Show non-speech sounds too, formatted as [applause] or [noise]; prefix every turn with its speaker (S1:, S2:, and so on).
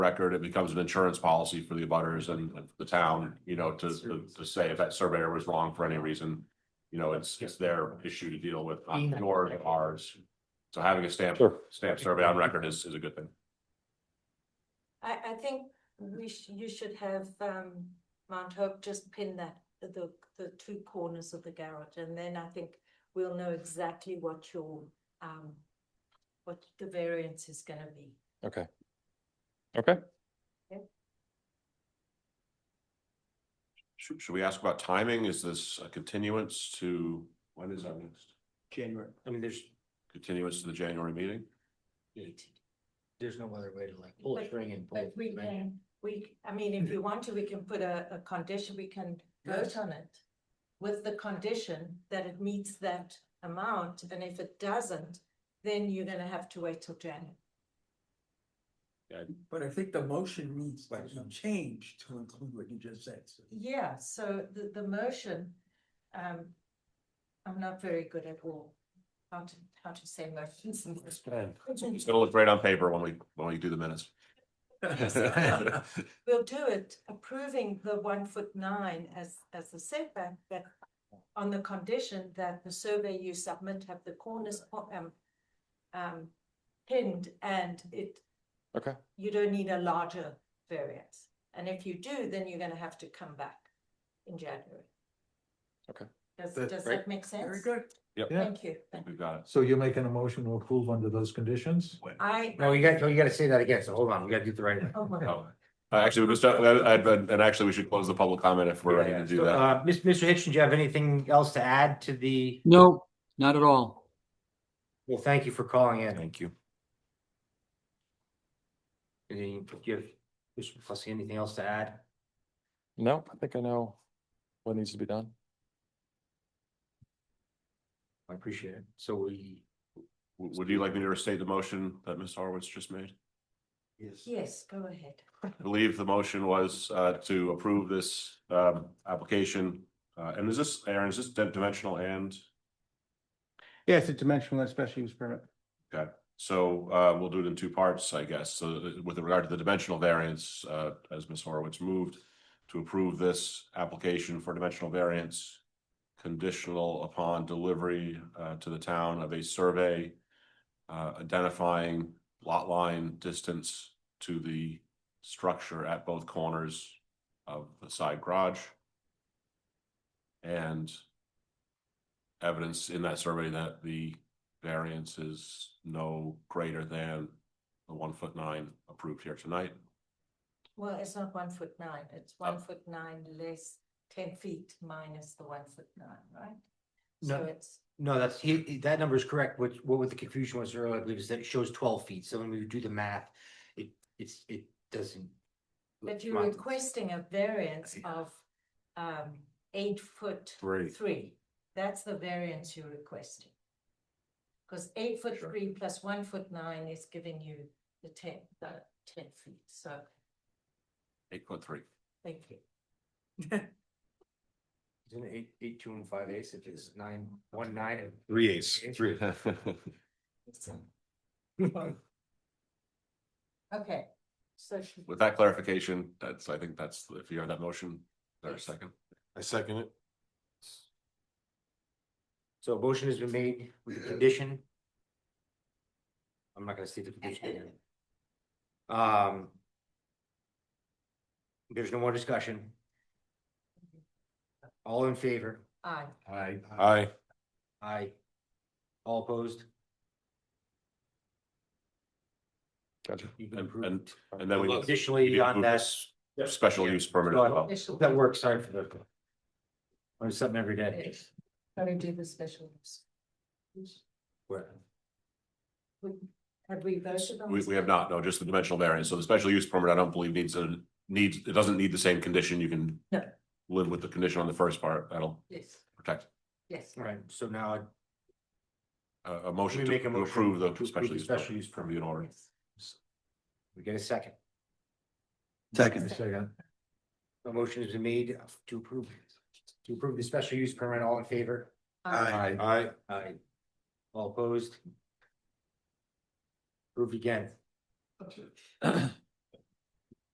S1: record, it becomes an insurance policy for the abutters and and the town, you know, to, to- to say if that surveyor was wrong for any reason. You know, it's, it's their issue to deal with, not yours or ours. So having a stamp,
S2: Sure.
S1: stamp survey on record is, is a good thing.
S3: I, I think we sh- you should have, um, Mount Hope just pin that, the, the two corners of the garage, and then I think we'll know exactly what your, um, what the variance is gonna be.
S2: Okay. Okay,
S1: Should, should we ask about timing? Is this a continuance to, when is our next?
S4: January, I mean, there's,
S1: Continuance to the January meeting?
S4: there's no other way to like pull a
S3: But-
S4: string and pull.
S3: But we
S4: the string.
S3: can, we, I mean, if you want to, we can put a, a condition, we can vote
S4: Yes.
S3: on it. With the condition that it meets that amount, and if it doesn't, then you're gonna have to wait till January.
S5: But I think the motion needs to be
S4: Right.
S5: changed to include what you just said.
S3: [laughs] Yeah, so the, the motion, um, I'm not very good at all, how to, how to say motions. and- [laughs]
S1: It's gonna look great on paper when we, when we do the [laughs] minutes.
S3: We'll do it approving the one foot nine as, as the setback, but on the condition that the survey you submit have the corners, po- um, um, pinned and it,
S2: okay,
S3: you don't need a larger variance. And if you do, then you're gonna have to come back in January.
S2: Okay.
S3: Does,
S6: That-
S3: does
S2: Great.
S3: that make sense?
S5: Very good.
S6: Yeah.
S3: Thank you.
S1: I think We've got it.
S6: So you're making a motion to approve under those conditions?
S3: I,
S4: No, you got, you gotta say that again, so hold on, we gotta do it the right way.
S3: oh my,
S1: Oh, uh, Actually, we just, uh, I- I- and actually, we should close the public comment if we're ready to do that.
S4: Uh, Mis- Mr. Hitchin, do you have anything else to add to the,
S7: No, not at all.
S4: well, thank you for calling in.
S1: Thank you.
S4: And you give, Mr. Plessy, anything else to add?
S2: no, I think I know what needs to be done.
S4: I appreciate it. So we,
S1: W- Would you like me to restate the motion that Ms. Horowitz just made?
S4: yes,
S3: yes, go ahead.
S1: I believe the motion was uh, to approve this um, application. Uh, And is this, Aaron, is this di- dimensional and?
S6: Yeah, it's a dimensional and special use permit.
S1: So uh, we'll do it in two parts, I guess. So uh, with regard to the dimensional variance, uh, as Ms. Horowitz moved to approve this application for dimensional variance conditional upon delivery uh, to the town of a survey uh, identifying lot line distance to the structure at both corners of the side garage. And evidence in that survey that the variance is no greater than the one foot nine approved here tonight.
S3: Well, it's not one foot nine, it's one foot nine less ten feet minus the one foot nine, right? So
S4: No.
S3: it's,
S4: no, that's, he, he- that number is correct. What, what was the confusion was earlier, I believe, is that it shows twelve feet. So when we do the math, it, it's, it doesn't.
S3: but you're requesting a variance of um eight foot.
S1: Three.
S3: Three, that's the variance you're requesting. Because eight foot
S1: Sure.
S3: three plus one foot nine is giving you the ten, the ten feet, so
S1: Eight foot three.
S3: thank you.
S4: Isn't it eight, eight, two and five eighths, if it's nine, one nine and
S1: Three eighths.
S4: Three.
S3: Okay, so should
S1: With that clarification, that's, I think that's, if you have that motion, there's
S3: Yes.
S1: a second.
S6: I second it.
S4: So a motion has been made with the condition. I'm not gonna state the condition again. Um. There's no more discussion. All in favor?
S3: I.
S4: Aye.
S1: Aye.
S4: Aye. All opposed?
S2: Gotcha.
S4: You can
S1: And-
S4: approve.
S1: and- And then we.
S4: Additionally, on that,
S1: Special use permit as well.
S3: Special-
S4: that works, sorry for the. Learn something every day.
S3: Yes. Gotta do the special. use.
S4: Where-
S3: We- Have we voted on?
S1: We,
S3: this?
S1: we have not, no, just the dimensional variance. So the special use permit, I don't believe needs a, needs, it doesn't need the same condition. You can
S3: No.
S1: live with the condition on the first part. That'll
S3: Yes,
S1: protect
S3: yes.
S4: Right, so now I'd
S1: uh, a, a motion
S4: We
S1: to
S4: make a
S1: to
S4: motion
S1: approve
S4: to
S1: the
S4: approve
S1: special
S4: the
S1: use.
S4: special
S1: permit.
S4: use permit.
S1: Be in order.
S3: yes.
S4: we get a second.
S6: Second. Second.
S4: A motion has been made to approve, to approve the special use permit, all in favor?
S3: Uh,
S6: Aye.
S4: Aye. Aye.
S2: [clears throat]
S4: All opposed? Approved again.